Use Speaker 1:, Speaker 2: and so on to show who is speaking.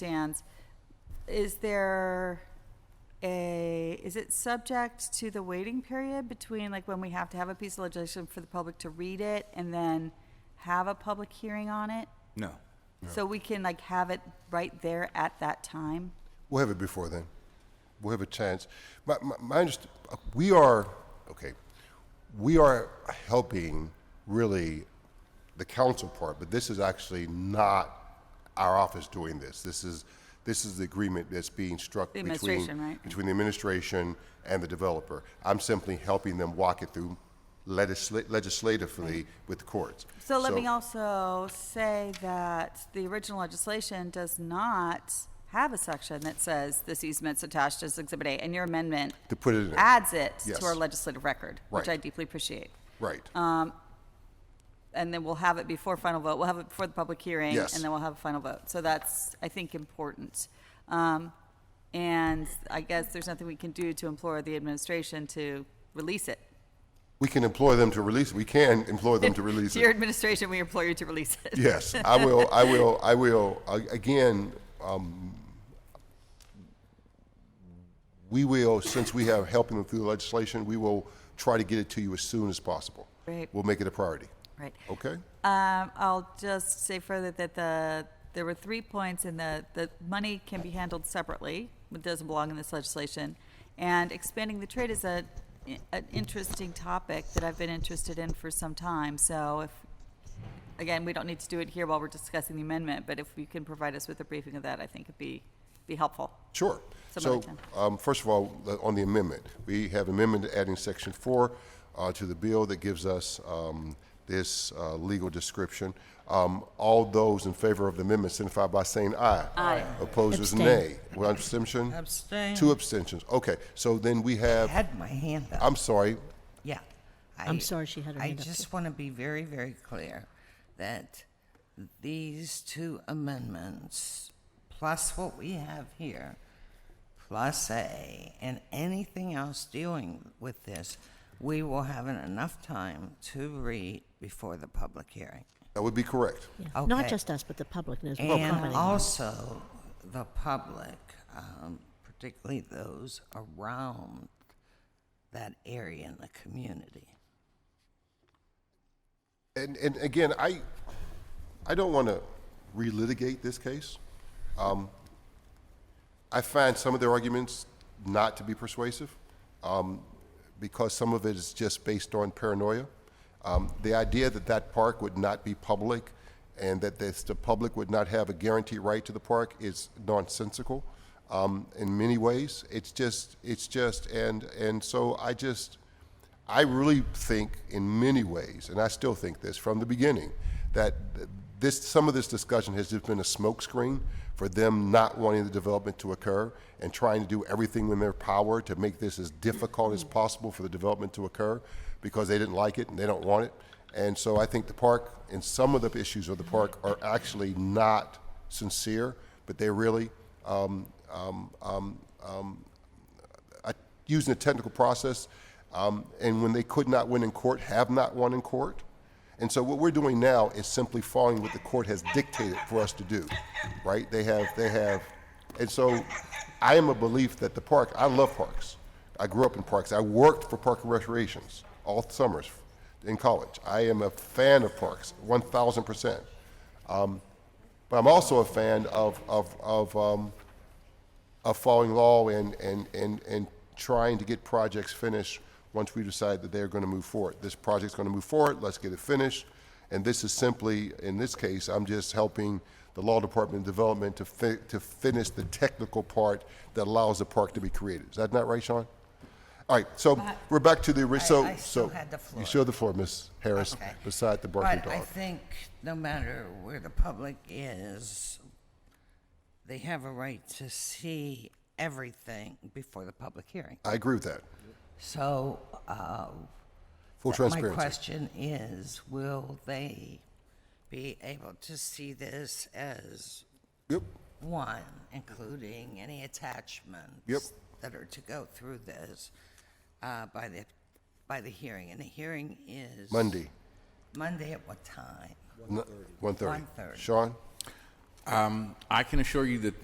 Speaker 1: stands, is there a, is it subject to the waiting period between, like, when we have to have a piece of legislation for the public to read it and then have a public hearing on it?
Speaker 2: No.
Speaker 1: So we can, like, have it right there at that time?
Speaker 3: We'll have it before then. We'll have a chance. My, my, my underst- we are, okay, we are helping really the council part, but this is actually not our office doing this. This is, this is the agreement that's being struck
Speaker 1: The
Speaker 3: between,
Speaker 1: administration, right?
Speaker 3: between the administration and the developer. I'm simply helping them walk it through legisla- legislatively with the courts.
Speaker 1: So let me also say that the original legislation does not have a section that says this easement's attached as Exhibit A, and your amendment
Speaker 3: To put it in.
Speaker 1: adds it
Speaker 3: Yes.
Speaker 1: to our legislative record, which
Speaker 3: Right.
Speaker 1: I deeply appreciate.
Speaker 3: Right.
Speaker 1: um, And then we'll have it before final vote. We'll have it before the public hearing,
Speaker 3: Yes.
Speaker 1: and then we'll have a final vote. So that's, I think, important. Um, and I guess there's nothing we can do to implore the administration to release it.
Speaker 3: we can employ them to release, we can implore them to release it.
Speaker 1: To your administration, we implore you to release it.
Speaker 3: Yes, I will. I will. I will. A- Again, um, we will. Since we have helping them through the legislation, we will try to get it to you as soon as possible.
Speaker 1: Right.
Speaker 3: We'll make it a priority.
Speaker 1: Right.
Speaker 3: Okay.
Speaker 1: Um, I'll just say further that the, there were three points in the, the money can be handled separately, it doesn't belong in this legislation. And expanding the trade is a, an interesting topic that I've been interested in for some time, so if, again, we don't need to do it here while we're discussing the amendment, but if you can provide us with a briefing of that, I think it'd be, be helpful.
Speaker 3: Sure. So,
Speaker 1: Somebody can.
Speaker 3: um, first of all, the- on the amendment, we have amendment adding section four uh, to the bill that gives us um, this uh, legal description. Um, All those in favor of the amendment signify by saying aye. Aye. Opposed is
Speaker 4: Abstain.
Speaker 3: nay. One abstention?
Speaker 5: Abstain.
Speaker 3: Two abstentions. Okay, so then we have,
Speaker 5: had my hand up.
Speaker 3: I'm sorry,
Speaker 5: yeah. I,
Speaker 4: I'm sorry she had her hand up,
Speaker 5: I
Speaker 4: too.
Speaker 5: just want to be very, very clear that these two amendments, plus what we have here, plus A, and anything else dealing with this, we will have in enough time to read before the public hearing.
Speaker 3: that would be correct.
Speaker 4: Yeah. Not
Speaker 5: Okay.
Speaker 4: just us, but the public knows what we're
Speaker 5: And
Speaker 4: commenting on.
Speaker 5: also the public, um, particularly those around that area in the community.
Speaker 3: And, and again, I, I don't want to relitigate this case. Um, I find some of their arguments not to be persuasive um, because some of it is just based on paranoia. Um, the idea that that park would not be public and that this, the public would not have a guaranteed right to the park is nonsensical um, in many ways. It's just, it's just, and, and so I just, I really think in many ways, and I still think this from the beginning, that this, some of this discussion has just been a smokescreen for them not wanting the development to occur and trying to do everything in their power to make this as difficult as possible for the development to occur because they didn't like it and they don't want it. And so I think the park and some of the issues of the park are actually not sincere, but they're really um, um, um, I- using a technical process, um, and when they could not win in court, have not won in court. And so what we're doing now is simply following what the court has dictated for us to do, right? They have, they have, and so I am a belief that the park, I love parks. I grew up in parks. I worked for park and recreations all summers in college. I am a fan of parks, one thousand percent. But I'm also a fan of, of, of, um, of following law and, and, and, and trying to get projects finished once we decide that they're going to move forward. This project's going to move forward, let's get it finished. And this is simply, in this case, I'm just helping the law department development to fi- to finish the technical part that allows the park to be created. Is that not right, Sean? All right, so we're back to the, ori- so, so.
Speaker 5: I still had the floor.
Speaker 3: You still had the floor, Ms. Harris,
Speaker 5: Okay.
Speaker 3: beside the barking
Speaker 5: But I
Speaker 3: dog.
Speaker 5: think no matter where the public is, they have a right to see everything before the public hearing.
Speaker 3: I agree with that,
Speaker 5: So, uh,
Speaker 3: full transparency.
Speaker 5: my question is, will they be able to see this as
Speaker 3: Yep.
Speaker 5: one, including any attachments
Speaker 3: Yep.
Speaker 5: that are to go through this uh, by the by the hearing? And the hearing is
Speaker 3: Monday,
Speaker 5: Monday at what time?
Speaker 3: n- 1:30.
Speaker 5: 1:30.
Speaker 3: Sean?
Speaker 2: I can assure you that